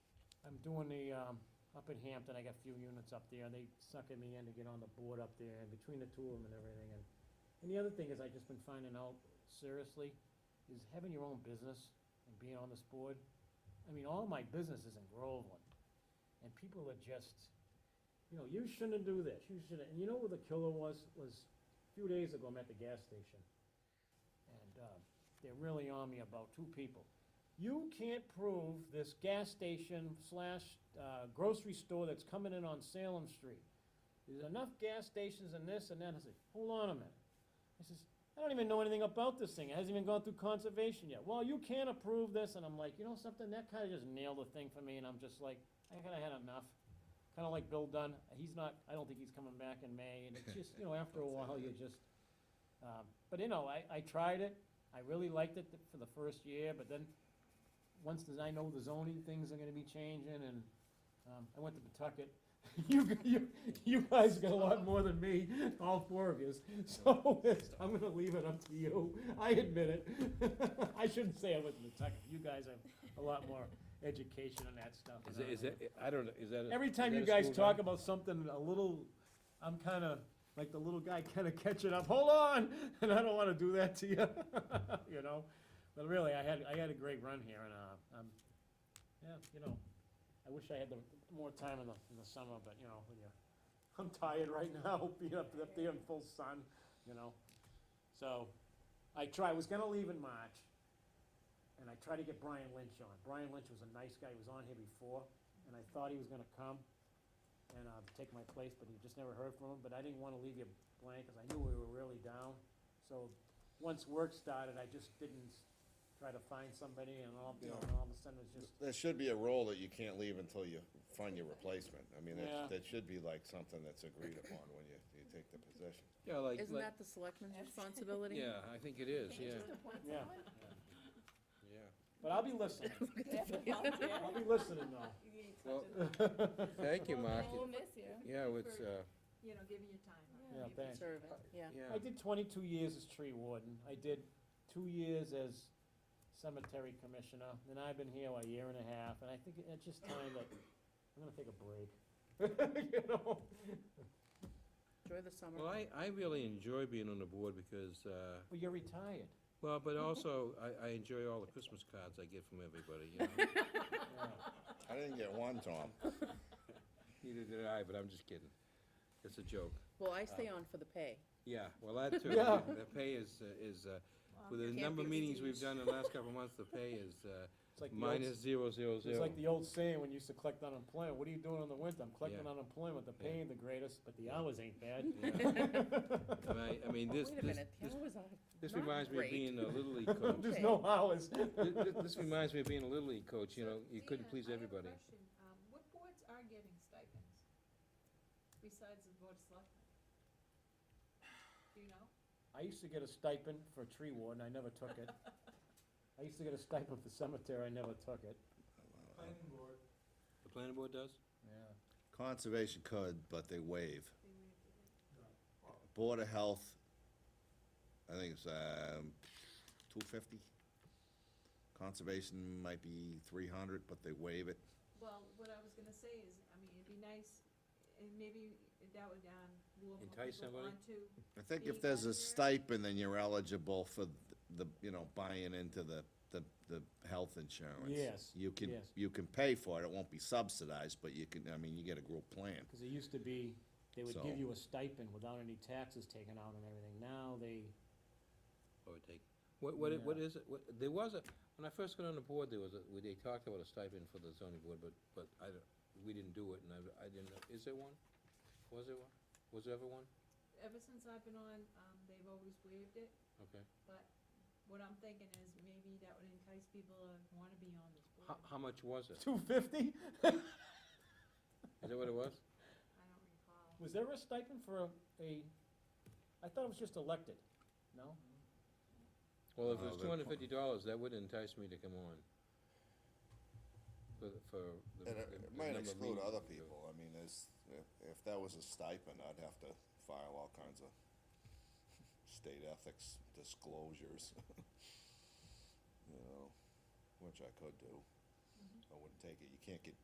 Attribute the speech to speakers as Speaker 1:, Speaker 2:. Speaker 1: doing the, um, up in Hampton, I got a few units up there, they suckered me in to get on the board up there, and between the two of them and everything, and, and the other thing is, I've just been finding out, seriously, is having your own business and being on this board, I mean, all my business is in Groveland, and people are just, you know, you shouldn't do this, you shouldn't, and you know what the killer was, was a few days ago, I'm at the gas station, and, uh, they're really on me about two people. You can't prove this gas station slash uh, grocery store that's coming in on Salem Street. There's enough gas stations and this and that. I said, hold on a minute. I says, I don't even know anything about this thing. It hasn't even gone through conservation yet. Well, you can't approve this. And I'm like, you know something? That kind of just nailed the thing for me. And I'm just like, I kind of had enough. Kind of like Bill Dunn. He's not, I don't think he's coming back in May. And it's just, you know, after a while, you just, um, but you know, I, I tried it. I really liked it th- for the first year, but then, once the- I know the zoning things are gonna be changing, and, um, I went to Pawtucket. You, g- you, you guys got a lot more than me, all four of yous, so it's- I'm gonna leave it up to you. I admit it. I shouldn't say I went to Pawtucket. You guys have a lot more education on that stuff. than
Speaker 2: Is it,
Speaker 1: I
Speaker 2: is
Speaker 1: do.
Speaker 2: it, I don't know, is that? a-
Speaker 1: Every
Speaker 2: is
Speaker 1: time
Speaker 2: that
Speaker 1: you
Speaker 2: a
Speaker 1: guys
Speaker 2: school
Speaker 1: talk
Speaker 2: ground?
Speaker 1: about something a little, I'm kinda, like the little guy kinda catching up, hold on, and I don't wanna do that to you, you know? But really, I had, I had a great run here, and, uh, um, yeah, you know, I wish I had the, more time in the, in the summer, but, you know, when you, I'm tired right now, being up, up there in full sun, you know? So, I try, I was gonna leave in March, and I tried to get Brian Lynch on. Brian Lynch was a nice guy, he was on here before, and I thought he was gonna come and, uh, take my place, but he just never heard from him, but I didn't wanna leave you blank, cause I knew we were really down. So, once work started, I just didn't s- try to find somebody, and all, you know, and all of a sudden it was just,
Speaker 3: There should be a role that you can't leave until you find your replacement. I mean,
Speaker 1: Yeah.
Speaker 3: that, that should be like something that's agreed upon when you, you take the position.
Speaker 2: Yeah, like,
Speaker 4: Isn't
Speaker 2: like,
Speaker 4: that the selectman's responsibility?
Speaker 2: yeah, I think it is, yeah,
Speaker 1: yeah.
Speaker 2: yeah.
Speaker 1: But I'll be listening, I'll be listening though.
Speaker 2: Well, thank you, Mark.
Speaker 5: We'll miss you.
Speaker 2: Yeah, it's, uh,
Speaker 5: You know, giving you time.
Speaker 1: Yeah, thanks.
Speaker 4: Serving, yeah.
Speaker 2: yeah.
Speaker 1: I did twenty-two years as tree warden, I did two years as cemetery commissioner, and I've been here a year and a half, and I think it's just time that, I'm gonna take a break. You know?
Speaker 4: Enjoy the summer.
Speaker 2: Well, I, I really enjoy being on the board because, uh,
Speaker 1: Well, you're retired.
Speaker 2: well, but also, I, I enjoy all the Christmas cards I get from everybody, you know?
Speaker 1: Yeah.
Speaker 3: I didn't get one, Tom.
Speaker 2: Neither did I, but I'm just kidding. It's a joke.
Speaker 4: Well, I stay on for the pay.
Speaker 2: Yeah, well, that too,
Speaker 1: Yeah.
Speaker 2: the pay is, uh, is, uh, with the
Speaker 4: Can't
Speaker 2: number of
Speaker 4: be
Speaker 2: meetings we've
Speaker 4: reduced.
Speaker 2: done in the last couple of months, the pay is, uh,
Speaker 1: It's like the old-
Speaker 2: minus zero, zero, zero.
Speaker 1: It's like the old saying when you used to collect unemployment, what are you doing in the winter? I'm collecting
Speaker 2: Yeah.
Speaker 1: unemployment, the pay ain't the greatest, but the hours ain't bad.
Speaker 2: Yeah. And I, I mean,
Speaker 4: Wait
Speaker 2: this,
Speaker 4: a
Speaker 2: this,
Speaker 4: minute,
Speaker 2: this-
Speaker 4: that was on.
Speaker 2: this
Speaker 4: not
Speaker 2: reminds me of
Speaker 4: great.
Speaker 2: being a Little League coach.
Speaker 1: There's no hours.
Speaker 2: Th- th- This reminds me of being a Little League coach, you know, you couldn't
Speaker 5: Dan,
Speaker 2: please
Speaker 5: I have a
Speaker 2: everybody.
Speaker 5: question. Um, What boards are getting stipends besides the Board of Selectmen? Do you know?
Speaker 1: I used to get a stipend for tree warden, I never took it. I used to get a stipend for cemetery, I never took it.
Speaker 2: The planning board does?
Speaker 1: Yeah.
Speaker 3: Conservation could, but they waive.
Speaker 5: They may have to-
Speaker 3: Board of Health, I think it's, um, two fifty. Conservation might be three hundred, but they waive it.
Speaker 5: Well, what I was gonna say is, I mean, it'd be nice, and maybe that would, um, lure more
Speaker 2: Entice
Speaker 5: people
Speaker 2: somebody?
Speaker 5: onto.
Speaker 3: I think if there's a stipend, then you're eligible for the, you know, buying into the, the, the health insurance.
Speaker 1: Yes,
Speaker 3: You can,
Speaker 1: yes.
Speaker 3: you can pay for it, it won't be subsidized, but you can, I mean, you get a group plan.
Speaker 1: Because it used to be, they would give
Speaker 3: So-
Speaker 1: you a stipend without any taxes taken out and everything. Now they,
Speaker 2: Or take, what, what, it- what
Speaker 1: Yeah.
Speaker 2: is it, what, there was a, when I first got on the board, there was a, they talked about a stipend for the zoning board, but, but I, don't- we didn't do it, and I, I didn't, know. is there one? Was there one? Was there ever one?
Speaker 5: Ever since I've been on, um, they've always waived it,
Speaker 2: Okay.
Speaker 5: but what I'm thinking is maybe that would entice people to wanna be on this board.
Speaker 2: How, how much was it?
Speaker 1: two fifty?
Speaker 2: Is that what it was?
Speaker 5: I don't recall.
Speaker 1: Was there a stipend for a- a, I thought it was just elected, no?
Speaker 2: Well, if it
Speaker 3: Uh,
Speaker 2: was
Speaker 3: the-
Speaker 2: two hundred and fifty dollars, that would entice me to come on. For, for. the-
Speaker 3: And
Speaker 2: the-
Speaker 3: it-
Speaker 2: the
Speaker 3: it might
Speaker 2: number of
Speaker 3: exclude
Speaker 2: meetings
Speaker 3: other
Speaker 2: we do.
Speaker 3: people, I mean, there's, if, if that was a stipend, I'd have to file all kinds of state ethics disclosures. You know, which I could do. I wouldn't take it, you can't get